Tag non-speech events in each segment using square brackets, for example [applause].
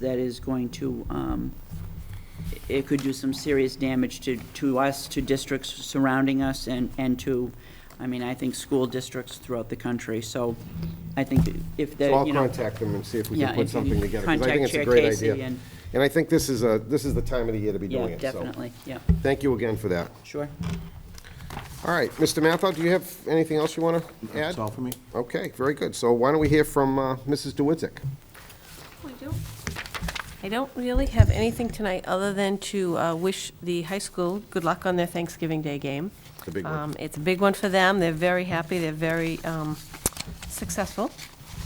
that is going to, um, it could do some serious damage to, to us, to districts surrounding us, and, and to, I mean, I think school districts throughout the country, so I think if So that, I'll you know. contact them and see if we Yeah, can put if you something together. 'cause I contact think it's a Chair great Casey idea. and- And I think this is a, this is the time of the year to be doing Yeah, it, so. definitely, yeah, Thank you again for that. sure. All right, Mr. Mathau, do you have anything else you want to add? That's all for me. Okay, very good. So why don't we hear from uh, Mrs. DeWitzik? I don't- I don't really have anything tonight, other than to uh, wish the high school good luck on their Thanksgiving Day game. It's a big one. Um, It's a big one for them, they're very happy, they're very um, successful,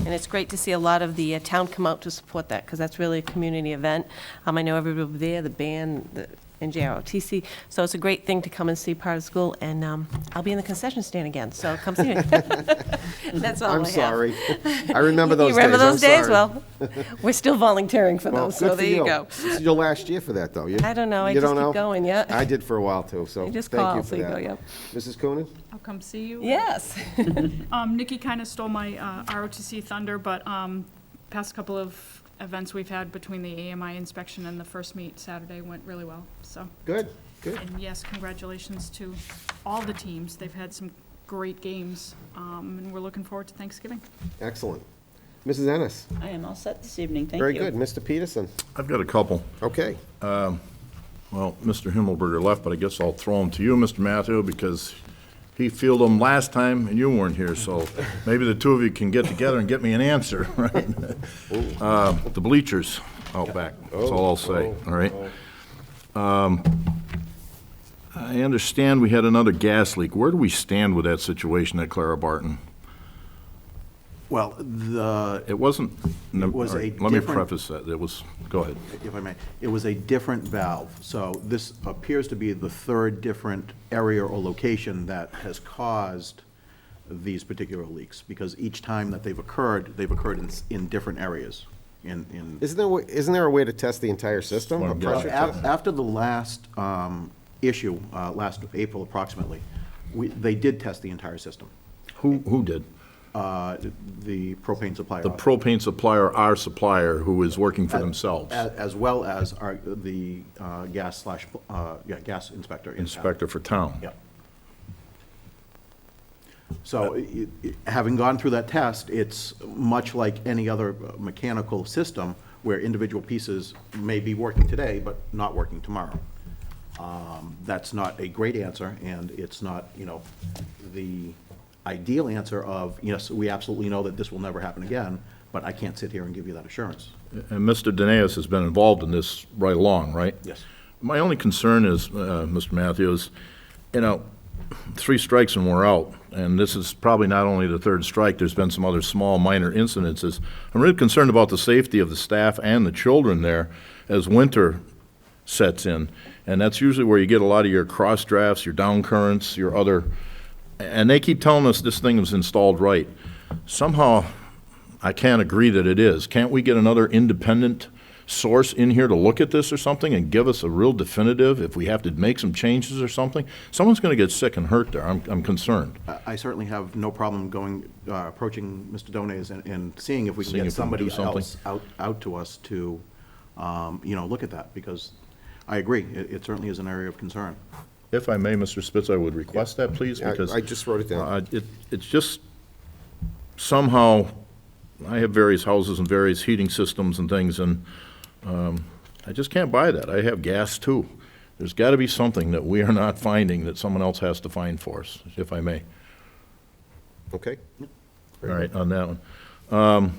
and it's great to see a lot of the uh, town come out to support that, because that's really a community event. Um, I know everybody will be there, the band, the NJROTC, so it's a great thing to come and see part of school, and um, I'll be in the concession stand again, so come see me. [laughs] That's all I have. I'm [laughs] sorry. I remember those You days. remember I'm those days? sorry. Well, we're still volunteering for Well, those, so good for there you go. This is your last year for that, though. You- I don't know. I you just don't keep know? going, yeah. I did for a while, too, so thank You you just for call, so you that. go, yep. Mrs. Coonan? I'll come see you. Yes. Um, Nikki kind of stole my uh, ROTC thunder, but um, past couple of events we've had between the AMI inspection and the first meet Saturday went really well, so. Good, good. And yes, congratulations to all the teams. They've had some great games, um, and we're looking forward to Thanksgiving. Excellent. Mrs. Ennis? I am all set this evening, thank you. Very good. Mr. Peterson? I've got a couple. Okay. Well, Mr. Himmelberger left, but I guess I'll throw them to you, Mr. Matthew, because he fielded them last time and you weren't here, so maybe the two of you can get together and get me an answer, [laughs] right? Oh. Uh, The bleachers out back, that's all I'll say, Oh, all right? Um, I understand we had another gas leak. Where do we stand with that situation at Clara Barton? Well, the, It wasn't, It was a all right, let me different- preface that, it was, go ahead. if I may, it was a different valve. So this appears to be the third different area or location that has caused these particular leaks, because each time that they've occurred, they've occurred in, s- in different areas, in, in. Isn't there, a way- isn't there a way to test the entire system? Well, A yeah. Well, pressure af- test? After the last um, issue, uh, last April approximately, we, they did test the entire system, Who, who did? uh, the propane supplier. The propane supplier, our supplier, who is working for themselves, As, as well as our, the uh, gas slash, uh, yeah, gas inspector. in town. inspector for town. Yep. So it- it- having gone through that test, it's much like any other uh, mechanical system where individual pieces may be working today, but not working tomorrow. Um, That's not a great answer, and it's not, you know, the ideal answer of, yes, we absolutely know that this will never happen again, but I can't sit here and give you that assurance. And Mr. Danaus has been involved in this right along, right? Yes. My only concern is, uh, Mr. Matthews, you know, three strikes and we're out, and this is probably not only the third strike, there's been some other small, minor incidences. I'm really concerned about the safety of the staff and the children there as winter sets in, and that's usually where you get a lot of your cross drafts, your down currents, your other, and they keep telling us this thing was installed right. Somehow, I can't agree that it is. Can't we get another independent source in here to look at this or something and give us a real definitive if we have to make some changes or something? Someone's going to get sick and hurt there. I'm, I'm concerned. I- I certainly have no problem going, uh, approaching Mr. Dones and, and seeing if we can Seeing get if we can do somebody something. else out, out to us to, um, you know, look at that, because I agree, it, it certainly is an area of concern. If I may, Mr. Spitz, I would request that, please, Yeah, I- because. I just wrote it down. Uh, It, it's just somehow, I have various houses and various heating systems and things, and um, I just can't buy that. I have gas too. There's got to be something that we are not finding that someone else has to find for us, if I may. Okay. All right, on that one. Um,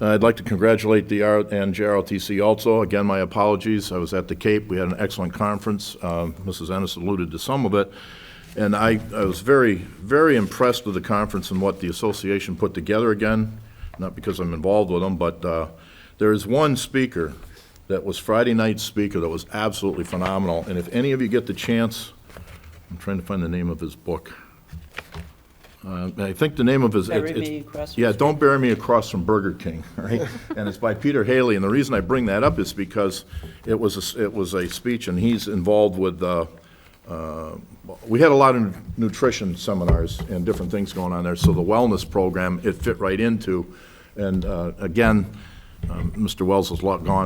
I'd like to congratulate the R and JROTC also. Again, my apologies, I was at the Cape, we had an excellent conference. Um, Mrs. Ennis alluded to some of it. And I, I was very, very impressed with the conference and what the association put together again, not because I'm involved with them, but uh, there is one speaker that was Friday night's speaker that was absolutely phenomenal. And if any of you get the chance, I'm trying to find the name of his book. Uh, I think the name of his. Bury it's- it's- Me Across from Yeah, Don't Bury Me Across from Burger King, [laughs] all right? And it's by Peter Haley, and the reason I bring that up is because it was, a s- it was a speech, and he's involved with, uh, uh, we had a lot of nutrition seminars and different things going on there, so the wellness program, it fit right into. And uh, again, Um, Mr. Wells has lo- gone